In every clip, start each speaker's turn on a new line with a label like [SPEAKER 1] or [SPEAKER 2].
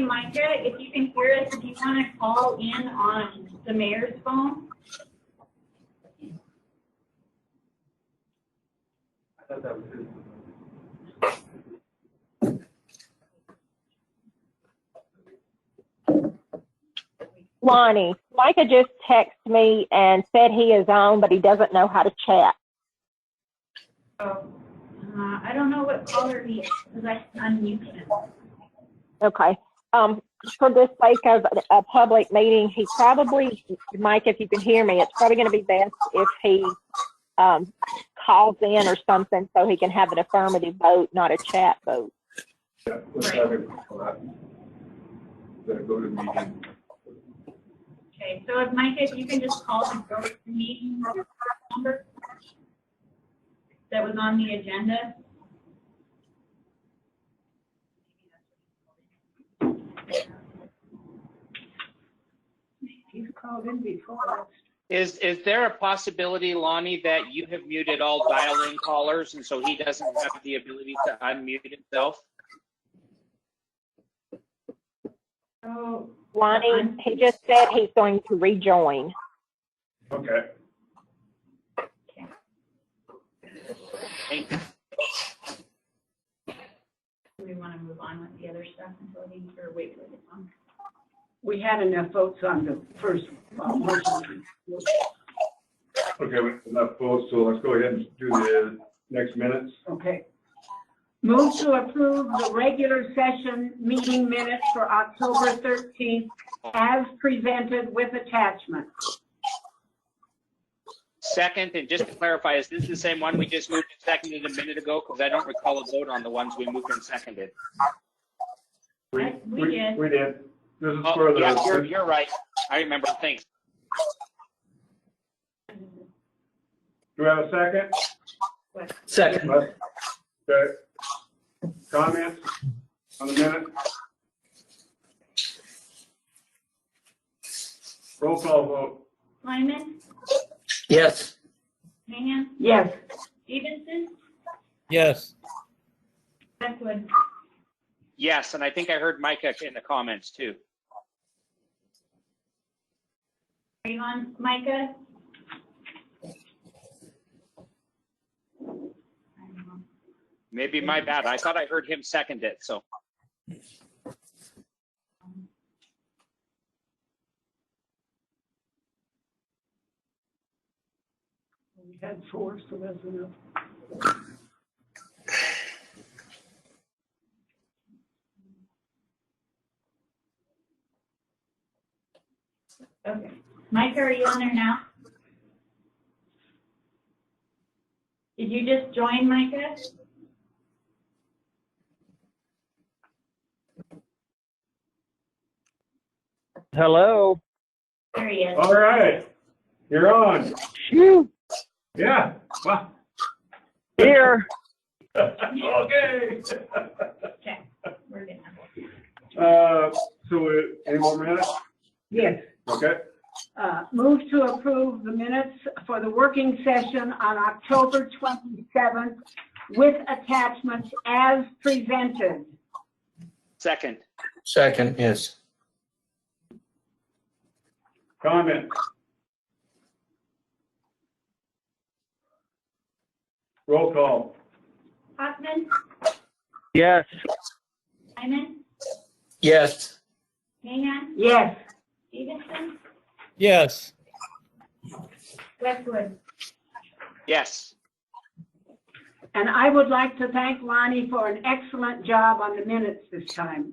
[SPEAKER 1] Micah, if you can hear us, if you want to call in on the mayor's phone.
[SPEAKER 2] I thought that was his.
[SPEAKER 3] Lonnie, Micah just texted me and said he is on, but he doesn't know how to chat.
[SPEAKER 1] So, uh, I don't know what caller he is, because I unmuted him.
[SPEAKER 3] Okay. Um, for the sake of a- a public meeting, he probably, Mike, if you can hear me, it's probably gonna be best if he, um, calls in or something so he can have an affirmative vote, not a chat vote.
[SPEAKER 2] Yeah, let's have it for that. That go to meeting.
[SPEAKER 1] Okay, so if Micah, if you can just call the go to meeting number that was on the agenda.
[SPEAKER 4] He's called in before.
[SPEAKER 5] Is, is there a possibility, Lonnie, that you have muted all dial-in callers and so he doesn't have the ability to unmute himself?
[SPEAKER 1] So,
[SPEAKER 3] Lonnie, he just said he's going to rejoin.
[SPEAKER 2] Okay.
[SPEAKER 5] Thank you.
[SPEAKER 1] do we want to move on with the other stuff until he, or wait for the phone?
[SPEAKER 4] We had enough votes on the first uh, motion.
[SPEAKER 2] Okay, we- enough votes, so let's go ahead and do the next minutes.
[SPEAKER 4] Okay. Move to approve the regular session meeting minutes for October 13th as presented with attachment.
[SPEAKER 5] Second, and just to clarify, is this the same one we just moved and seconded a minute ago? Because I don't recall a vote on the ones we moved and seconded.
[SPEAKER 1] I- we did.
[SPEAKER 2] We did. This is for
[SPEAKER 5] Oh,
[SPEAKER 2] the.
[SPEAKER 5] yeah, you're, you're right. I remember. Thanks.
[SPEAKER 2] Do we have a second?
[SPEAKER 6] Second.
[SPEAKER 2] Okay. Comments on the minute? Roll call vote.
[SPEAKER 1] Lyman,
[SPEAKER 6] Yes.
[SPEAKER 1] Mahan,
[SPEAKER 4] Yes.
[SPEAKER 1] Stevenson,
[SPEAKER 6] Yes.
[SPEAKER 1] Westwood.
[SPEAKER 5] Yes, and I think I heard Micah in the comments too.
[SPEAKER 1] Are you on, Micah?
[SPEAKER 5] Maybe my bad. I thought I heard him second it, so.
[SPEAKER 4] We had four, so that's enough.
[SPEAKER 1] Okay. Micah, are you on there now? Did you just join, Micah?
[SPEAKER 7] Hello.
[SPEAKER 1] There he is.
[SPEAKER 2] All right, you're on.
[SPEAKER 7] Phew.
[SPEAKER 2] Yeah. Wow.
[SPEAKER 7] Here.
[SPEAKER 2] Okay.
[SPEAKER 1] Okay, we're good now.
[SPEAKER 2] Uh, so uh, any more minutes?
[SPEAKER 4] Yes.
[SPEAKER 2] Okay.
[SPEAKER 4] Uh, Move to approve the minutes for the working session on October 27th with attachments as presented.
[SPEAKER 5] Second,
[SPEAKER 6] Second, yes.
[SPEAKER 2] Comment? Roll call.
[SPEAKER 1] Hoffman,
[SPEAKER 7] Yes.
[SPEAKER 1] Lyman,
[SPEAKER 6] Yes.
[SPEAKER 1] Mahan,
[SPEAKER 4] Yes.
[SPEAKER 1] Stevenson,
[SPEAKER 7] Yes.
[SPEAKER 1] Westwood.
[SPEAKER 5] yes.
[SPEAKER 4] And I would like to thank Lonnie for an excellent job on the minutes this time.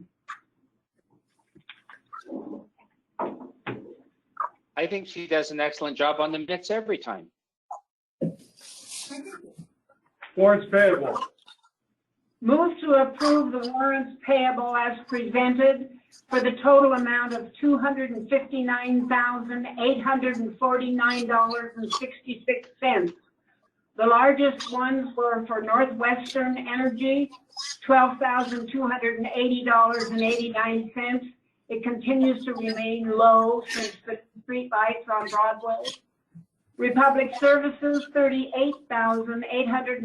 [SPEAKER 5] I think she does an excellent job on the minutes every time.
[SPEAKER 2] Warrants payable.
[SPEAKER 4] Move to approve the warrants payable as presented for the total amount of two hundred and fifty-nine thousand, eight hundred and forty-nine dollars and sixty-six cents. The largest ones were for Northwestern Energy, twelve thousand, two hundred and eighty dollars and eighty-nine cents. It continues to remain low since the streetlights on Broadway. Republic Services, thirty-eight thousand, eight hundred and